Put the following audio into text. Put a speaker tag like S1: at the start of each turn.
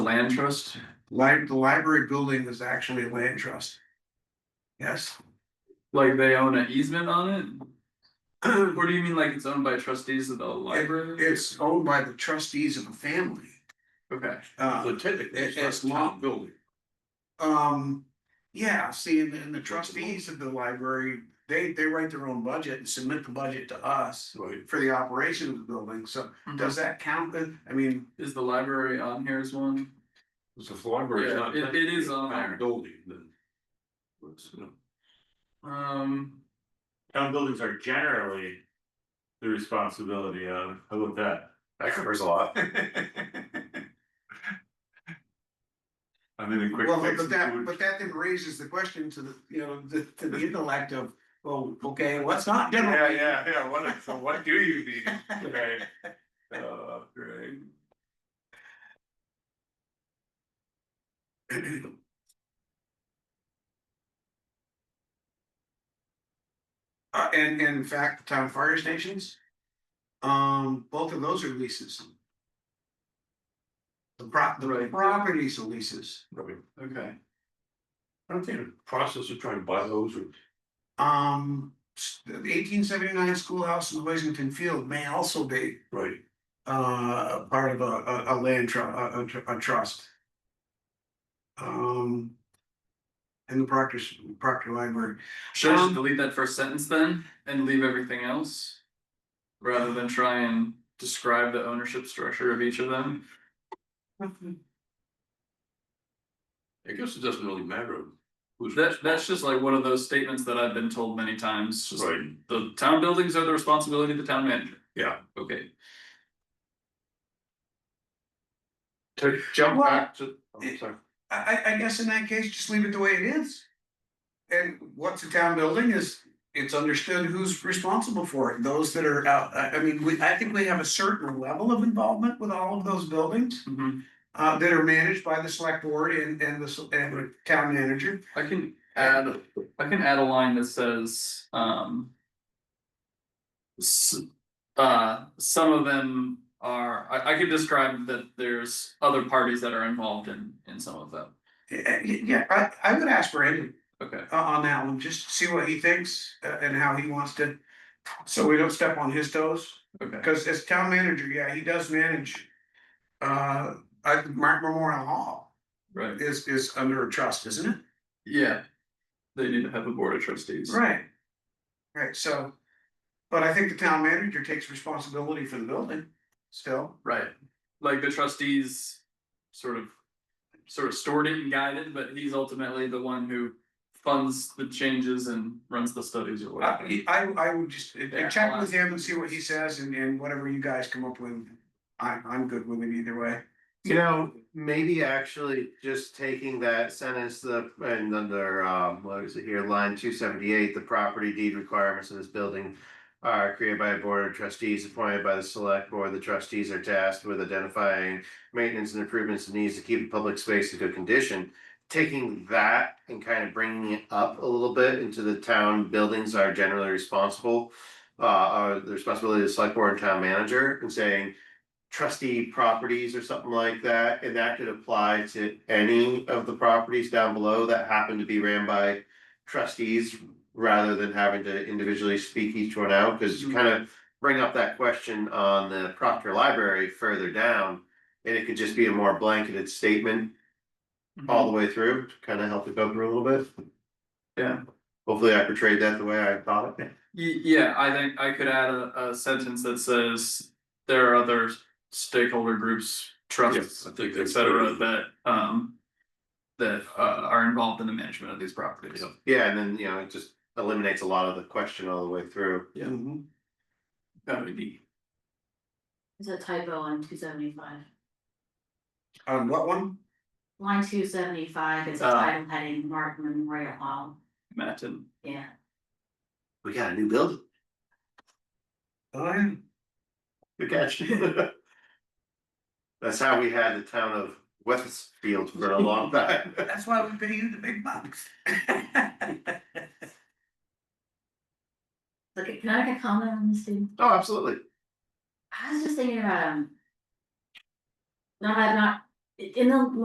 S1: Land trust?
S2: Li- the library building was actually a land trust. Yes,
S1: Like they own an easement on it? Or do you mean like it's owned by trustees of the library?
S2: it's owned by the trustees of a family.
S1: Okay,
S2: Uh,
S3: typically,
S2: it's not a town
S3: building.
S2: um, yeah, see, and and the trustees of the library, they, they write their own budget and submit the budget to us
S3: Right.
S2: for the operation of the building, so
S3: Mm-hmm.
S2: does that count then? I mean,
S1: Mm-hmm. is the library on here as one?
S3: So the library is
S1: Yeah,
S3: not.
S1: it- it is
S3: technically a
S1: on
S3: town
S1: there.
S3: Building then. It's, you know,
S1: Um,
S4: Town buildings are generally the responsibility of, how about that?
S3: That covers a lot. And then a quick.
S2: well,
S3: fix
S2: but
S3: and
S2: that,
S3: food.
S2: but that then raises the question to the, you know, the, to the intellect of, well, okay, what's not general?
S3: Yeah, yeah, yeah, what, so what do you need, right? Uh, right.
S2: Uh, and, and in fact, the town fire stations. Um, both of those are leases. The prop, the
S1: Right.
S2: properties are leases,
S3: Probably,
S1: okay,
S3: I don't think the process of trying to buy those or.
S2: um, eighteen seventy-nine schoolhouse in Washington Field may also be.
S3: Right.
S2: Uh, part of a, a, a land tru- a- a, tr- a trust. Um. And the Proctor's, Proctor Library,
S1: should I just
S2: Um,
S1: delete that first sentence then and leave everything else? Rather than try and describe the ownership structure of each of them?
S3: I guess it doesn't really matter. who's
S1: That, that's just like one of those statements that I've been told many times, just
S3: Right,
S1: the town buildings are the responsibility of the town manager.
S3: yeah.
S1: Okay,
S3: To jump
S2: Well,
S3: back to, I'm sorry.
S2: I, I, I guess in that case, just leave it the way it is. And what's a town building is, it's understood who's responsible for it, those that are out, I, I mean, we, I think we have a certain level of involvement with all of those buildings.
S1: mhm.
S2: Uh, that are managed by the select board and, and the, s- and the town manager.
S1: I can add, I can add a line that says, um. s- uh, some of them are, I, I could describe that there's other parties that are involved in, in some of them.
S2: Eh, eh, Yeah, I, I would ask Brandon
S1: Okay,
S2: uh, on that one, just see what he thinks uh, and how he wants to. So we don't step on his toes.
S1: okay,
S2: Cause as town manager, yeah, he does manage. Uh, I, Mark Memorial Hall
S1: right,
S2: is, is under a trust, isn't it?
S1: yeah. They need to have a board of trustees.
S2: Right. Right, so. But I think the town manager takes responsibility for the building still.
S1: Right, like the trustees sort of, sort of stored it and guided, but he's ultimately the one who funds the changes and runs the studies or whatever.
S2: I, I, I would just uh,
S1: Yeah,
S2: check
S1: I'll
S2: with
S1: ask.
S2: him and see what he says and, and whatever you guys come up with. I, I'm good with it either way.
S5: You know, maybe actually just taking that sentence, the, and under, um, what is it here, line two seventy-eight, the property deed requirements of this building. Are created by a board of trustees appointed by the select board, the trustees are tasked with identifying maintenance and improvements and needs to keep the public space in good condition. Taking that and kind of bringing it up a little bit into the town buildings are generally responsible. Uh, are the responsibility of the select board and town manager and saying, trustee properties or something like that, and that could apply to any of the properties down below that happen to be ran by trustees rather than having to individually speak each one out, because you kind of bring up that question on the Proctor Library further down, and it could just be a more blanketed statement all the way through, to kind of help it go through a little bit.
S1: Yeah.
S5: Hopefully I portrayed that the way I thought it.
S1: Ye- yeah, I think I could add a, a sentence that says there are other stakeholder groups, trusts,
S3: Yes, I think
S1: et
S3: that's
S1: cetera,
S3: very-
S1: that, um. That, uh, are involved in the management of these properties.
S3: Yeah.
S5: Yeah, and then, you know, it just eliminates a lot of the question all the way through.
S1: Yeah. Mm-hmm.
S2: Mhm.
S1: That would be,
S6: It's a typo on two seventy five.
S2: On Um, what one?
S6: Line two seventy five is a
S1: Ah.
S6: title heading Mark Memorial Hall,
S1: Matt and,
S6: yeah.
S5: We got a new building.
S2: Oh,
S5: Good catch. That's how we had the town of Westfield for a long time.
S2: yeah. That's why we pay you the big bucks.
S6: Look, can I make a comment on this dude?
S5: Oh, absolutely.
S6: I was just thinking about um. No, I'm not, in the